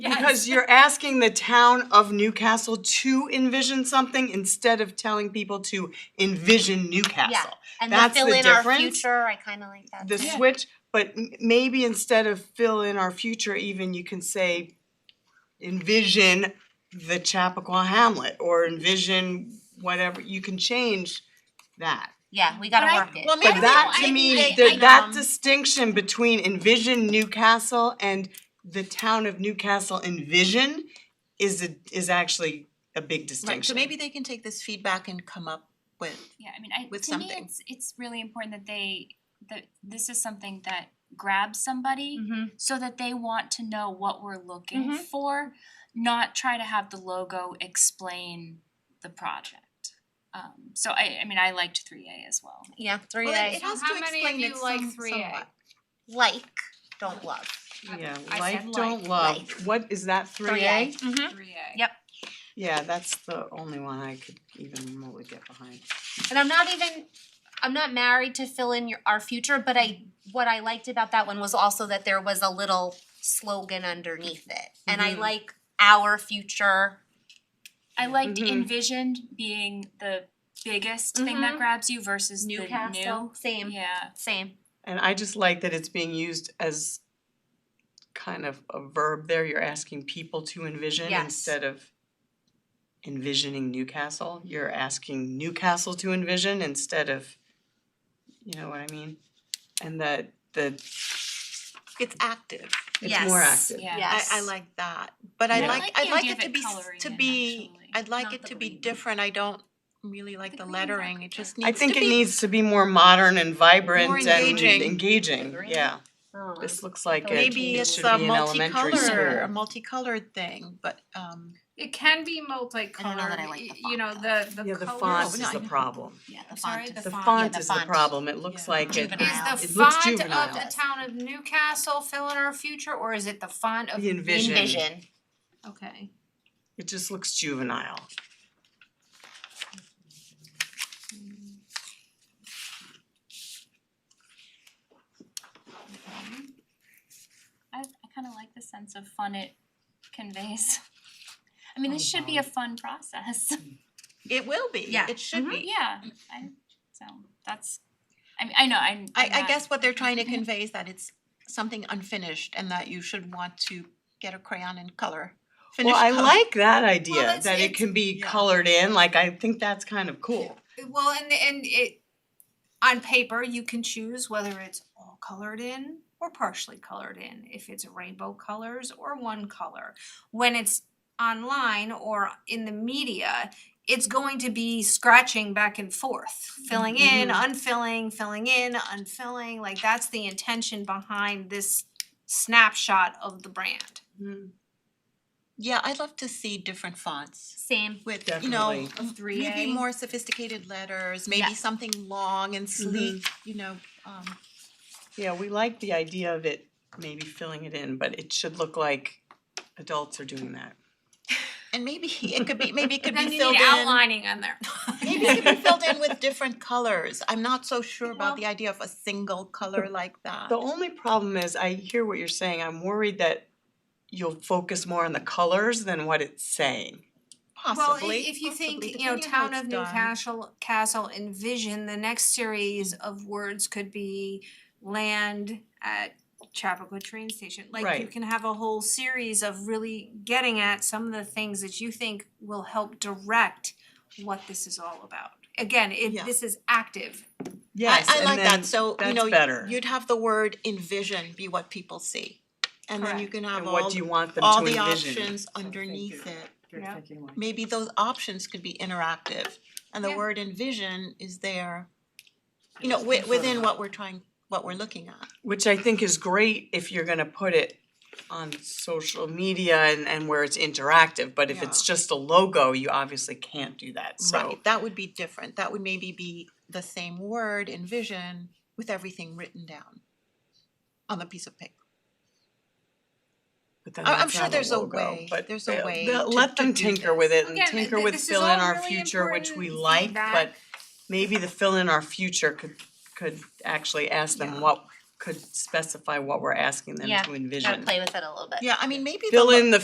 Because you're asking the town of Newcastle to envision something instead of telling people to envision Yeah, Newcastle. and That's the fill the in our difference. future, I kinda like that. The too. switch, but m- maybe instead of fill in our future, even you can say envision the Chappaqua Hamlet or envision whatever, you can change that. Yeah, we gotta But I- work it. well, maybe But we that I- to me, I- there- I- that um, distinction between envision Newcastle and the town of Newcastle envision is a, is actually a big Right, so distinction. maybe they can take this feedback and come up with, Yeah, I mean, I, with to me, something. it's, it's really important that they, that this is something that grabs somebody Mm-hmm. so that they want to know what we're looking Mhm. for, not try to have the logo explain the project. Um, so I, I mean, I liked three A as well. Yeah, three Well, it- A, it has How to many of explain you it like some- 3A? somewhat. like, don't love. Yeah, I said like, don't like, love, what is that, Oh, three A? Three A. Yep. Yeah, that's the only one I could even remotely get behind. And I'm not even, I'm not married to fill in your, our future, but I, what I liked about that one was also that there was a little slogan underneath it. And I Mhm. like our future, I liked Mm-hmm. Mhm. envisioned being the biggest thing Mm-hmm. that Mhm. grabs you versus the new. Newcastle, same, Yeah, same. And I just like that it's being used as kind of a verb there, you're asking people to envision Yes. instead of envisioning Newcastle, you're asking Newcastle to envision instead of, you know what I mean? And that, the, it's active. it's more Yes. active. yeah. I Yes. I like that, but I Yeah. I like, like the I'd like idea it of to it be, s- coloring to in, be, actually. I'd like Not it the to be green. different, I don't really like The the green lettering, background. it just I needs to be. think it needs to be more modern and vibrant More and engaging. engaging, yeah. This looks like it Maybe it it's should a be in elementary school. multicolor, a multicolored thing, but um, It can be I don't know that I multicolored, like the y- font, you know, though. the the color. Yeah, the font Oh, no, is I the know. problem. Yeah, the I'm sorry, font the is. The font. font the is the font. problem, it looks Yeah. like it, Juvenile. Is the It looks font of juvenile. the town of Newcastle fill in our future, or is it the font of? the envision, it Envision, Okay. just looks juvenile. I, I kind of like the sense of fun it conveys. I mean, Oh, this should be a fun process. it will be, Yeah. it should Mm-hmm. be. yeah. I, so that's, I mean, I know, I'm. I I'm I not- guess what they're trying to Mhm. Mm-hmm. convey is that it's something unfinished and that you should want to get a crayon and color, finish Well, I color. like that idea, it's- that it it's- can be yeah. colored in, like I think that's kind of cool. Well, and and it, on paper, you can choose whether it's all colored in or partially colored in, if it's rainbow colors or one color. When it's online or in the media, it's going to be scratching back and forth, filling in, unfilling, filling in, unfilling, like that's the intention behind this snapshot of the brand. Mm-hmm. Yeah, I'd love to see different fonts. same. with, you know, Definitely. m- maybe more sophisticated letters, maybe Yeah. something long and sleek, Mm-hmm. you know, um, Yeah, we like the idea of it maybe filling it in, but it should look like adults are doing that. and maybe it could be, maybe it could Then be you filled need in, outlining on there. maybe it could be filled in with different colors. I'm not so sure about the idea of a single color like that. The only problem is, I hear what you're saying, I'm worried that you'll focus more on the colors than what it's saying. Possibly, Well, i- if you think, possibly, you know, depending on how town of it's done. Newcastle, Castle envision, the next series of words could be land at Chappaqua train station. Like you Right. can have a whole series of really getting at some of the things that you think will help direct what this is all about. Again, Yeah. if this is active, Yes, I, I and like then that, so, you that's know, better. y- you'd have the word envision be what people see. And then you Correct. can have And all, what do the- you want them to all the envision? options underneath it. you know, maybe those options could be interactive and the Yeah. word envision is there you know wi- within what we're trying what we're looking at Which I think is great if you're gonna put it on social media and and where it's interactive, but if it's just a logo, you obviously can't do that, so. right that would be different that would maybe be the same word envision with everything written down on the piece of paper But then I- I'm that's sure not there's a logo, way- but there's a they'll- way they'll to- Let to them do tinker this. with it and Again, tinker th- with this is fill in all our really future, which important we like, but feedback. maybe the fill in our future could could actually ask Yeah. them what, could specify what we're asking them Yeah, to envision. Gotta play with it a little bit. yeah i mean maybe the Fill lo- in the